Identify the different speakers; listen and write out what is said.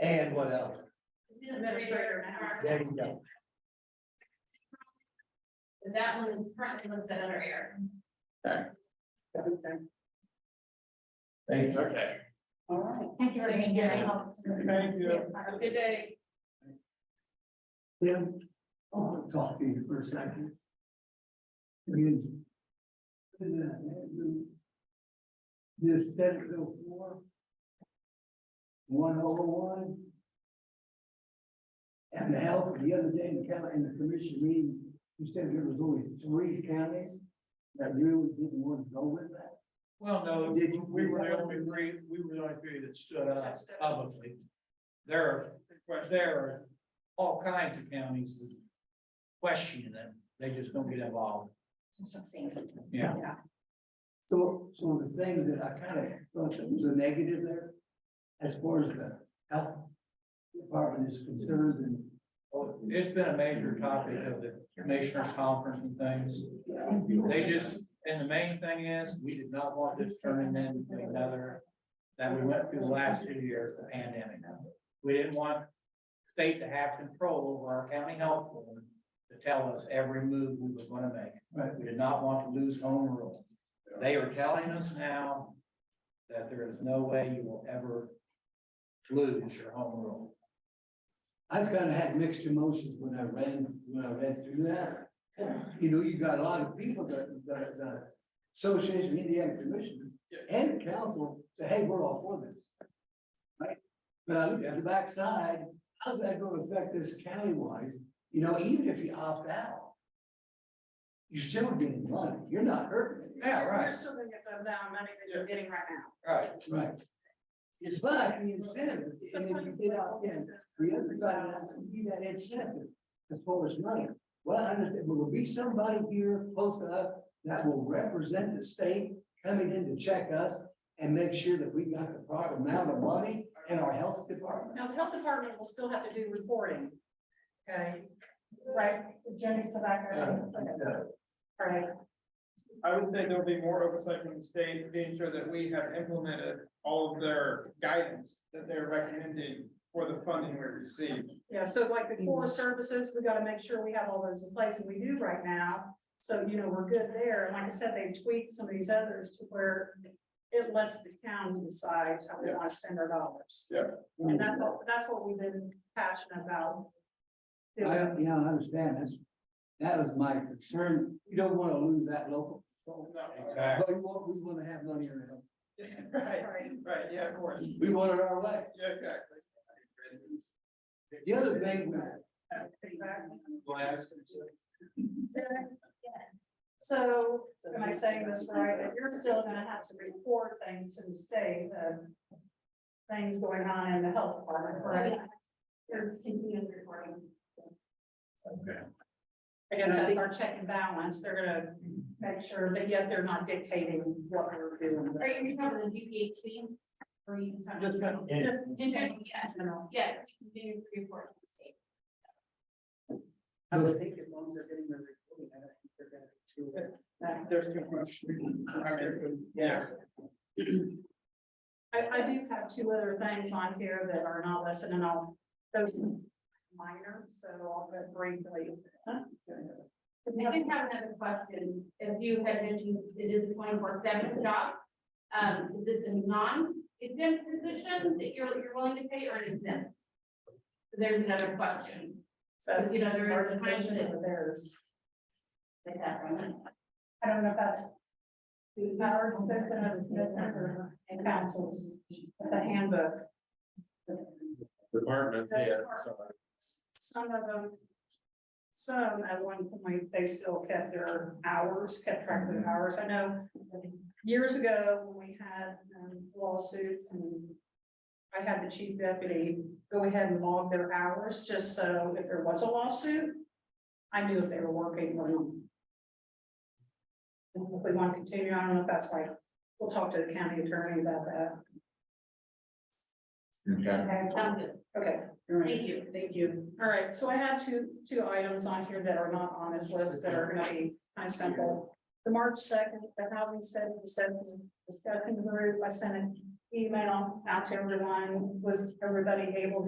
Speaker 1: And what else?
Speaker 2: Administrator.
Speaker 1: There you go.
Speaker 2: And That one is currently listed under air.
Speaker 3: Okay,
Speaker 1: Thank you.
Speaker 4: Okay,
Speaker 3: all right.
Speaker 2: Thank you very much.
Speaker 3: Thank you.
Speaker 2: Have a good day.
Speaker 5: Yeah. I want to oh, talk to you for a second. Because. This Senate Bill four. One oh one. And the health, the other day in the county, in the commission meeting, you said there was only three counties that really didn't want to go with that.
Speaker 4: well, no,
Speaker 5: Did you-
Speaker 4: we were the only three, we were the only three that stood up publicly. There, are- there are all kinds of counties that question them, they just don't get involved. Yeah,
Speaker 5: So, so the thing that I kind of thought that was a negative there, as far as the health department is concerned and
Speaker 4: Well, it's been a major topic of the commissioners conference and things. They just, and the main thing is, we did not want this turning into another that we went through the last two years, the pandemic. We didn't want state to have control over our county health board to tell us every move we were gonna make.
Speaker 5: Right.
Speaker 4: We did not want to lose home rule. They are telling us now that there is no way you will ever lose your home rule.
Speaker 5: I've kind of had mixed emotions when I ran, when I read through that. You know, you got a lot of people that, that, the Association of Indiana Commissioners and the council say, hey, we're all for this. Right? But I looked at the backside, how's that gonna affect this county-wise? You know, even if you opt out, you're still getting money. You're not hurting it.
Speaker 4: Yeah,
Speaker 3: You're
Speaker 4: right,
Speaker 3: still gonna get the amount of money that you're getting right now.
Speaker 4: right.
Speaker 5: Right. It's but the incentive, and if you get out in, the other side has to be that incentive as far as money. Well, I understand, but will be somebody here close to us that will represent the state coming in to check us and make sure that we got the proper amount of money in our health department.
Speaker 3: Now, the health department will still have to do reporting. Okay, right, Jenny Savaka. Right,
Speaker 6: I would say there'll be more oversight from the state, being sure that we have implemented all of their guidance that they're recommending for the funding we receive.
Speaker 3: yeah, so like the core services, we gotta make sure we have all those in place, and we do right now. So, you know, we're good there, and like I said, they tweaked some of these others to where it lets the county decide how we wanna spend our dollars.
Speaker 6: Yeah.
Speaker 3: And that's what, that's what we've been passionate about.
Speaker 5: I, yeah, I understand, that's, that is my concern, you don't wanna lose that local,
Speaker 6: No,
Speaker 4: Exactly.
Speaker 5: but we want, we wanna have money in our health,
Speaker 6: Right,
Speaker 3: Right.
Speaker 6: right, yeah, of course,
Speaker 5: we want it our way.
Speaker 6: yeah, exactly.
Speaker 5: The other thing, we-
Speaker 3: So, am I saying this right, that you're still gonna have to report things to the state, of things going on in the health department, correct?
Speaker 2: There's continuous reporting.
Speaker 3: I guess that's our check and balance, they're gonna make sure, but yet they're not dictating what we're doing.
Speaker 2: Are you talking the GPHC? Or are you talking?
Speaker 3: Just, just
Speaker 2: In general, yes,
Speaker 3: general.
Speaker 2: yeah, we continue to report to the state.
Speaker 5: I would
Speaker 3: think as long as they're getting the recording, I don't think they're gonna do it.
Speaker 6: There's too much. I mean, Yeah,
Speaker 3: I, I do have two other things on here that are not listed and I'll, those are minor, so I'll go briefly.
Speaker 2: I did have another question, as you had mentioned, it is a twenty-four seven job. Um, is this a non-exempt position that you're, you're willing to pay or an exempt? There's another question,
Speaker 3: So,
Speaker 2: you know, there
Speaker 3: our
Speaker 2: is times
Speaker 3: decision
Speaker 2: that,
Speaker 3: of theirs.
Speaker 2: like that one.
Speaker 3: I don't know if that's the power description of the, and councils, it's a handbook.
Speaker 4: Department,
Speaker 3: yeah, Some of them, some at one point, they still kept their hours, kept track of their hours. I know years ago, when we had um, lawsuits and I had the chief deputy go ahead and log their hours, just so if there was a lawsuit, I knew if they were working or not. And if we want to continue, I don't know if that's like, we'll talk to the county attorney about that.
Speaker 2: Sounds good,
Speaker 3: Okay.
Speaker 2: thank you.
Speaker 3: Thank you. All right, so I have two, two items on here that are not on this list that are gonna be kind of simple. The March second, the housing study, the discussion discussion group, I sent an email out to everyone, was everybody able